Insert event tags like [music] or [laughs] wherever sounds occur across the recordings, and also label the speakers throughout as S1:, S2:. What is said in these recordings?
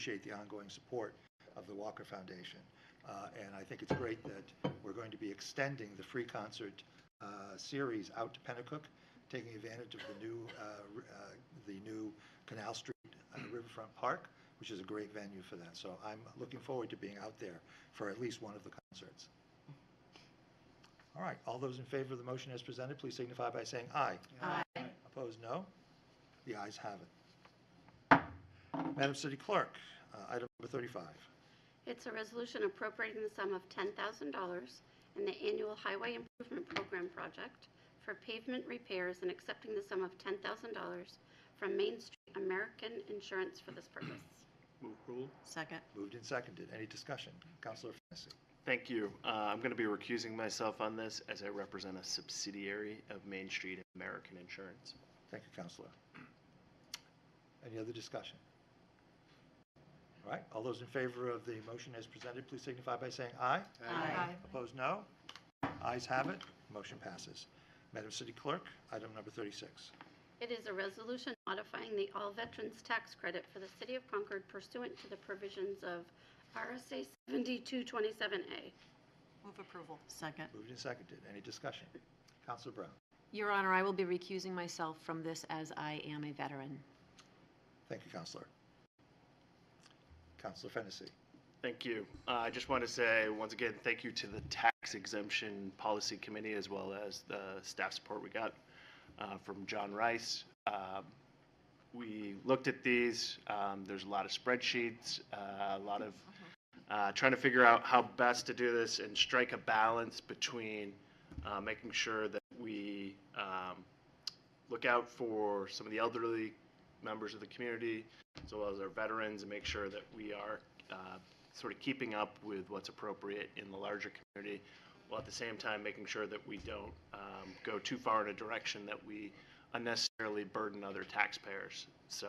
S1: appreciate the ongoing support of the Walker Foundation. Uh, And I think it's great that we're going to be extending the free concert uh, series out to Pennacook, taking advantage of the new, uh, r- uh, the new Canal Street uh, Riverfront Park, which is a great venue for that. So I'm looking forward to being out there for at least one of the concerts. All right, all those in favor of the motion as presented, please signify by saying aye.
S2: Aye.
S1: Opposed, no? The ayes have it. Madam City Clerk, uh, item number 35.
S2: It's a resolution appropriating the sum of $10,000 in the annual Highway Improvement Program project for pavement repairs and accepting the sum of $10,000 from Main Street American Insurance for this purpose.
S3: Move rule.
S4: Second.
S1: Moved and seconded. Any discussion? Counselor Fennessy.
S3: Thank you. Uh, I'm going to be recusing myself on this as I represent a subsidiary of Main Street American Insurance.
S1: Thank you, Counselor. Any other discussion? All right, all those in favor of the motion as presented, please signify by saying aye.
S4: Aye.
S1: Opposed, no? Ayes have it. Motion passes. Madam City Clerk, item number 36.
S2: It is a resolution modifying the All Veterans Tax Credit for the City of Concord pursuant to the provisions of RSA 7227A.
S4: Move approval. Second.
S1: Moved and seconded. Any discussion? Counselor Brown.
S5: Your Honor, I will be recusing myself from this as I am a veteran.
S1: Thank you, Counselor. Counselor Fennessy.
S3: Thank you. Uh, I just want to say, once again, thank you to the Tax Exemption Policy Committee as well as the staff support we got uh, from John Rice. Um, We looked at these. um, There's a lot of spreadsheets, uh, a lot of uh, trying to figure out how best to do this and strike a balance between uh, making sure that we um, look out for some of the elderly members of the community, as well as our veterans, and make sure that we are uh, sort of keeping up with what's appropriate in the larger community, while at the same time making sure that we don't um, go too far in a direction that we unnecessarily burden other taxpayers. So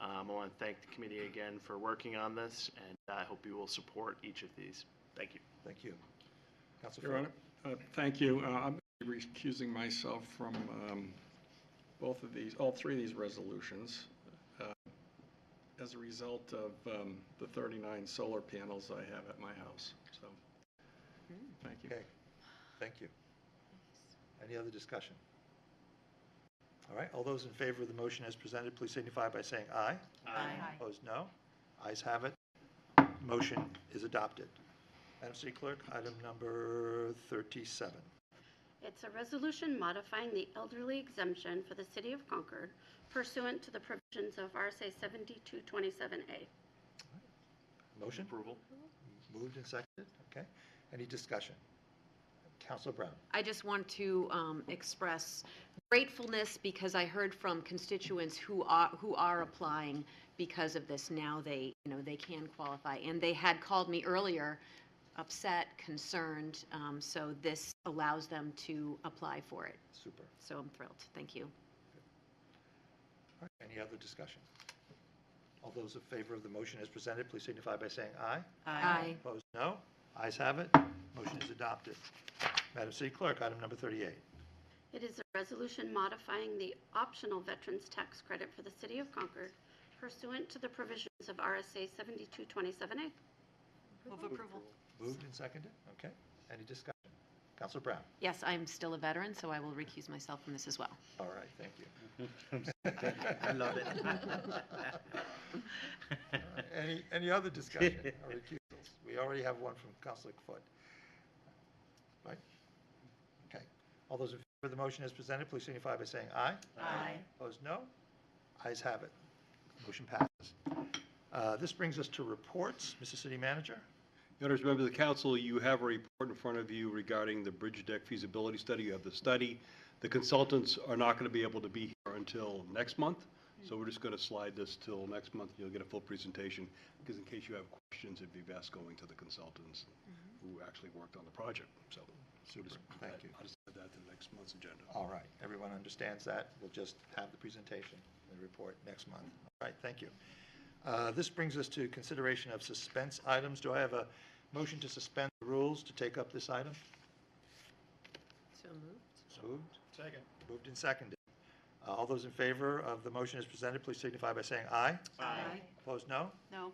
S3: um, I want to thank the committee again for working on this, and I hope you will support each of these. Thank you.
S1: Thank you. Counselor
S6: Your
S1: Finn.
S6: Honor, uh, thank you. Uh, I'm recusing myself from um, both of these, all three of these resolutions. uh, As a result of um, the 39 solar panels I have at my house, so, thank you.
S1: Okay, thank you. Any other discussion? All right, all those in favor of the motion as presented, please signify by saying aye.
S4: Aye.
S1: Opposed, no. Ayes have it. Motion is adopted. Madam City Clerk, item number 37.
S2: It's a resolution modifying the elderly exemption for the City of Concord pursuant to the provisions of RSA 7227A.
S1: Motion
S3: Approval?
S1: moved and seconded, okay. Any discussion? Counselor Brown.
S5: I just want to um, express gratefulness because I heard from constituents who are, who are applying because of this. Now they, you know, they can qualify. And they had called me earlier, upset, concerned, um, so this allows them to apply for it.
S1: Super.
S5: So I'm thrilled. Thank you.
S1: All right, Any other discussion? All those in favor of the motion as presented, please signify by saying aye.
S5: Aye.
S1: Opposed, no. Ayes have it. Motion is adopted. Madam City Clerk, item number 38.
S2: It is a resolution modifying the optional veterans tax credit for the City of Concord pursuant to the provisions of RSA 7227A.
S4: Move approval.
S1: Moved and seconded, okay. Any discussion? Counselor Brown?
S5: Yes, I'm still a veteran, so I will recuse myself from this as well.
S1: All right, thank you. [laughs] [laughs] I love it. Uh,
S3: [laughs]
S1: Any, any other discussion or recusals? We already have one from Counselor Foot. Right? Okay. All those in favor of the motion as presented, please signify by saying aye.
S4: Aye.
S1: Opposed, no? Ayes have it. Motion passes. Uh, This brings us to reports. Mr. City Manager?
S7: Your Honors, members of the council, you have a report in front of you regarding the bridge deck feasibility study. You have the study. The consultants are not going to be able to be here until next month, so we're just going to slide this till next month. You'll get a full presentation, because in case you have questions, it'd be best going to the consultants who actually worked on the project, so. so just-
S1: Thank you.
S7: I'll just add that to the next month's agenda.
S1: All right, everyone understands that. We'll just have the presentation and report next month. All right, thank you. Uh, This brings us to consideration of suspense items. Do I have a motion to suspend the rules to take up this item?
S5: So moved.
S1: Moved. Second. Moved and seconded. Uh, All those in favor of the motion as presented, please signify by saying aye.
S4: Aye.
S1: Opposed, no?
S4: No.